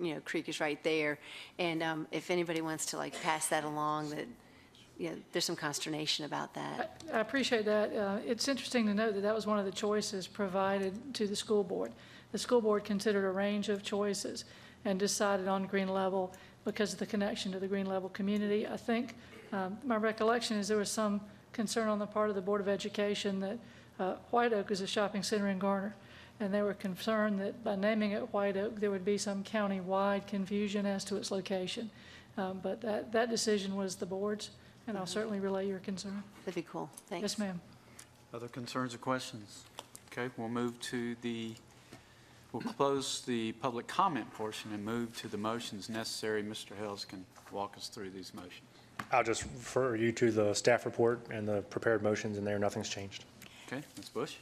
you know, creek is right there. And um, if anybody wants to like pass that along, that, you know, there's some consternation about that. I appreciate that. Uh, It's interesting to note that that was one of the choices provided to the school board. The school board considered a range of choices and decided on Green Level because of the connection to the Green Level community. I think, um, my recollection is there was some concern on the part of the Board of Education that uh, White Oak is a shopping center in Garner, and they were concerned that by naming it White Oak, there would be some county-wide confusion as to its location. Um, But that, that decision was the board's, and I'll certainly relay your concern. That'd be cool. Thanks. Yes, ma'am. Other concerns or questions? Okay, we'll move to the, we'll close the public comment portion and move to the motions necessary. Mr. Hales can walk us through these motions. I'll just refer you to the staff report and the prepared motions in there. Nothing's changed. Okay, Ms. Bush?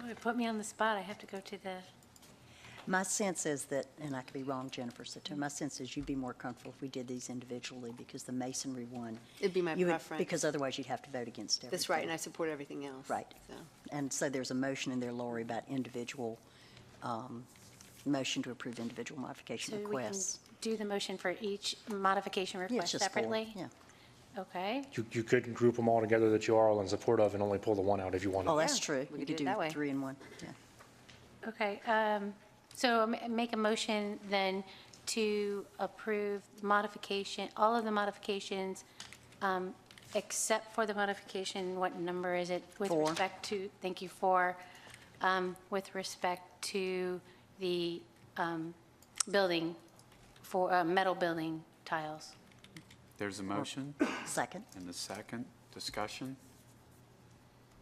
Boy, put me on the spot. I have to go to the, My sense is that, and I could be wrong, Jennifer, so too, my sense is you'd be more comfortable if we did these individually because the masonry one. It'd be my you would- preference. Because otherwise you'd have to vote against everything. That's right, and I support everything else. Right. So, And so there's a motion in there, Lori, about individual, um, motion to approve individual so modification we can requests. do the motion for each modification Yeah, it's request just four. separately? Yeah. Okay, You, you could group them all together that you are all in support of and only pull the one out if you Oh, wanted. that's Yeah, true. we You could do it that way. do three in one, yeah. okay. Um, So m- make a motion then to approve the modification, all of the modifications, um, except for the modification, what number is it? Four. With respect to, thank you, four, um, with respect to the um, building, for uh, metal building tiles. There's a motion Second. and the second discussion.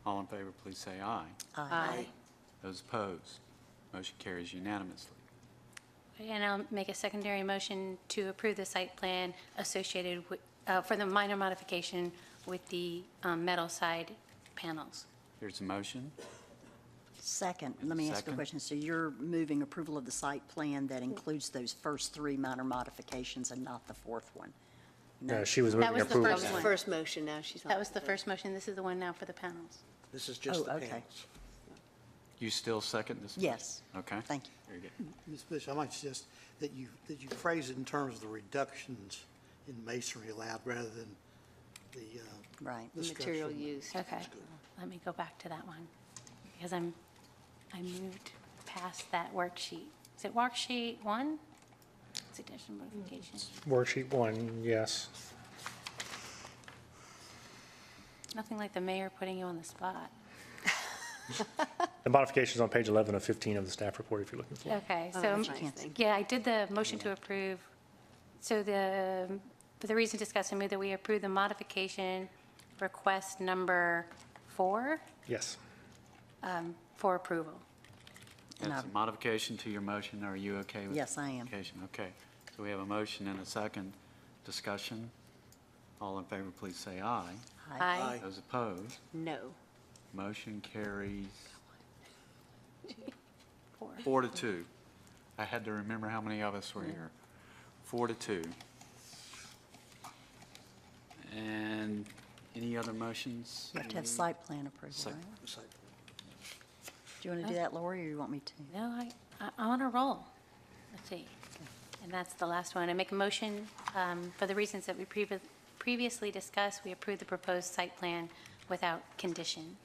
All in favor, please say aye. Aye. Those opposed, motion carries unanimously. And I'll make a secondary motion to approve the site plan associated with, uh, for the minor modification with the um, metal side panels. There's a motion. Second, let me ask you Second. a question. So you're moving approval of the site plan Mm. that includes those first three minor modifications and not the fourth one? No, she was moving was the That approval. was the Excellent. first motion, now she's on. That was the first motion, this is the one now for the panels. This is just Oh, the okay. panels. You still second this? motion? Yes. Okay. Thank you. Very good. Ms. Bishop, I might suggest that you, that you phrase it in terms of the reductions in masonry allowed rather than the, uh, Right. the Material structural- used. Okay, let me go back to that one, because I'm, I moved past that worksheet. Is it worksheet one? Suggestion modification, Worksheet one, yes. nothing like the mayor putting you on the spot. The modifications on page 11 of 15 of the staff report if you're looking for. it. Okay, Oh, so, that's nice. Thank yeah, I did the motion to approve. So the, for the reason discussed, I move that we approve the modification request number four um, Yes. for approval. And That's a I- modification to your motion. Are you okay with? Yes, the I am. modification? Okay. So we have a motion and a second discussion. All in favor, please say aye. Aye. Those opposed, No. motion carries Four. four to two. I had to remember how many of us were here. Four to two. And any other motions? You have to have site plan approval, Site- right? Site Do you want to do that, Lori, or you want me to? No, I, I- I'm on a roll. Let's see. And that's the last one. I make a motion, um, for the reasons that we previ- previously discussed, we approve the proposed site plan without condition.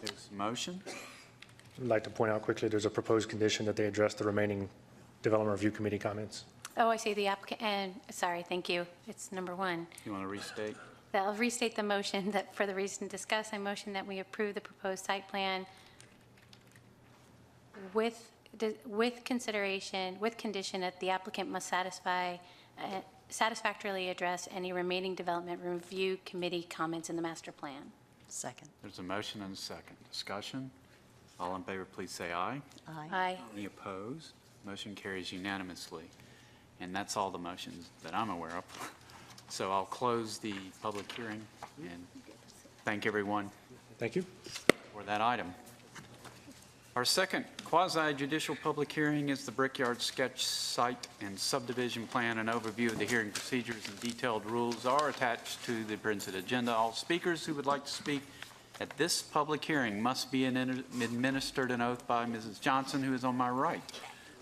There's a motion. I'd like to point out quickly, there's a proposed condition that they address the remaining development review committee comments. Oh, I see the applicant, and, sorry, thank you. It's number one. You want to restate? That I'll restate the motion that, for the reason discussed, I motion that we approve the proposed site plan with, with consideration, with condition that the applicant must satisfy, uh, satisfactorily address any remaining development review committee comments in the master plan. Second. There's a motion and a second discussion. All in favor, please say aye. Aye. Aye. Any opposed? Motion carries unanimously. And that's all the motions that I'm aware of. So I'll close the public hearing and thank everyone Thank you. for that item. Our second quasi-judicial public hearing is the Brickyard Sketch Site and Subdivision Plan. An overview of the hearing procedures and detailed rules are attached to the printed agenda. All speakers who would like to speak at this public hearing must be an- administered an oath by Mrs. Johnson, who is on my right.